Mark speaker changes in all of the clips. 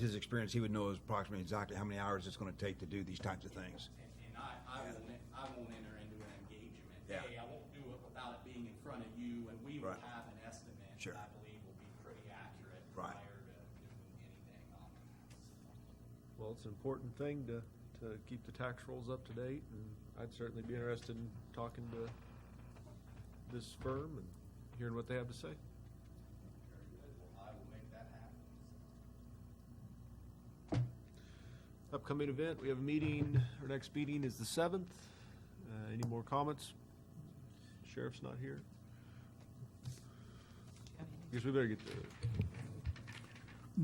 Speaker 1: his experience, he would know approximately exactly how many hours it's going to take to do these types of things.
Speaker 2: And, and I, I won't, I won't enter into an engagement.
Speaker 1: Yeah.
Speaker 2: Hey, I won't do it without it being in front of you, and we will
Speaker 1: Right.
Speaker 2: have an estimate.
Speaker 1: Sure.
Speaker 2: that I believe will be pretty accurate.
Speaker 1: Right.
Speaker 2: Prior to doing anything on that.
Speaker 3: Well, it's an important thing to, to keep the tax rolls up to date, and I'd certainly be interested in talking to this firm and hearing what they have to say.
Speaker 2: Very good, well, I will make that happen.
Speaker 3: Upcoming event, we have a meeting, our next meeting is the seventh. Uh, any more comments? Sheriff's not here. Guess we better get the,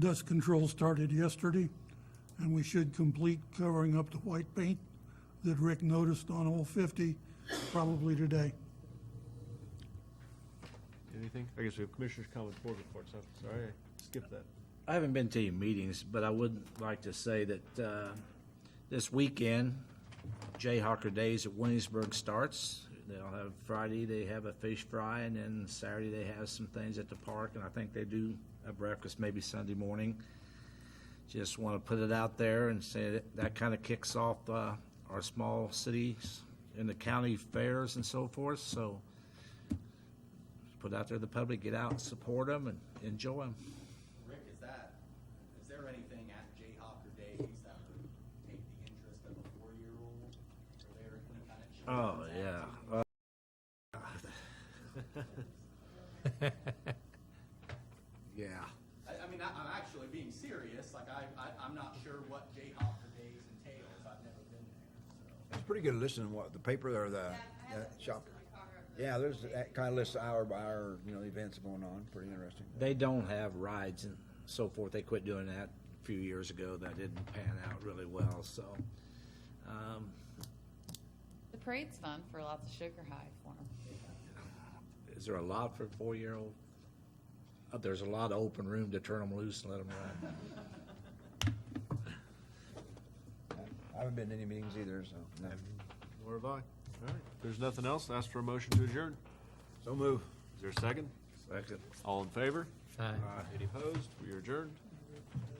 Speaker 4: Dust control started yesterday, and we should complete covering up the white paint that Rick noticed on Old 50 probably today.
Speaker 3: anything? I guess we have commissioners' comments, board reports, I'm sorry, I skipped that.
Speaker 5: I haven't been to your meetings, but I would like to say that uh, this weekend, Jayhawker Days at Williamsburg starts. They'll have Friday, they have a fish fry, and then Saturday, they have some things at the park, and I think they do a breakfast maybe Sunday morning. Just want to put it out there and say that that kind of kicks off uh, our small cities and the county fairs and so forth, so put out there to the public, get out, support them, and enjoy them.
Speaker 2: Rick, is that, is there anything at Jayhawker Days that would take the interest of a four-year-old? Are there any kind of
Speaker 5: Oh,
Speaker 2: children's
Speaker 5: yeah.
Speaker 2: activities?
Speaker 5: Uh, Yeah.
Speaker 2: I, I mean, I, I'm actually being serious. Like, I, I, I'm not sure what Jayhawker Days entails. I've never been there, so.
Speaker 1: It's pretty good listening to what the paper or the that shop. Yeah, there's that kind of lists hour by hour, you know, the events going on. Pretty interesting.
Speaker 5: They don't have rides and so forth. They quit doing that a few years ago. That didn't pan out really well, so. um,
Speaker 6: The parade's fun for lots of sugar high for 'em.
Speaker 5: Is there a lot for a four-year-old? Uh, There's a lot of open room to turn them loose and let them run.
Speaker 1: I haven't been to any meetings either, so no.
Speaker 3: Nor have I. All right, if there's nothing else, ask for a motion to adjourn.
Speaker 1: so move.
Speaker 3: Is there a second?
Speaker 5: Second.
Speaker 3: All in favor? Any opposed? We are adjourned.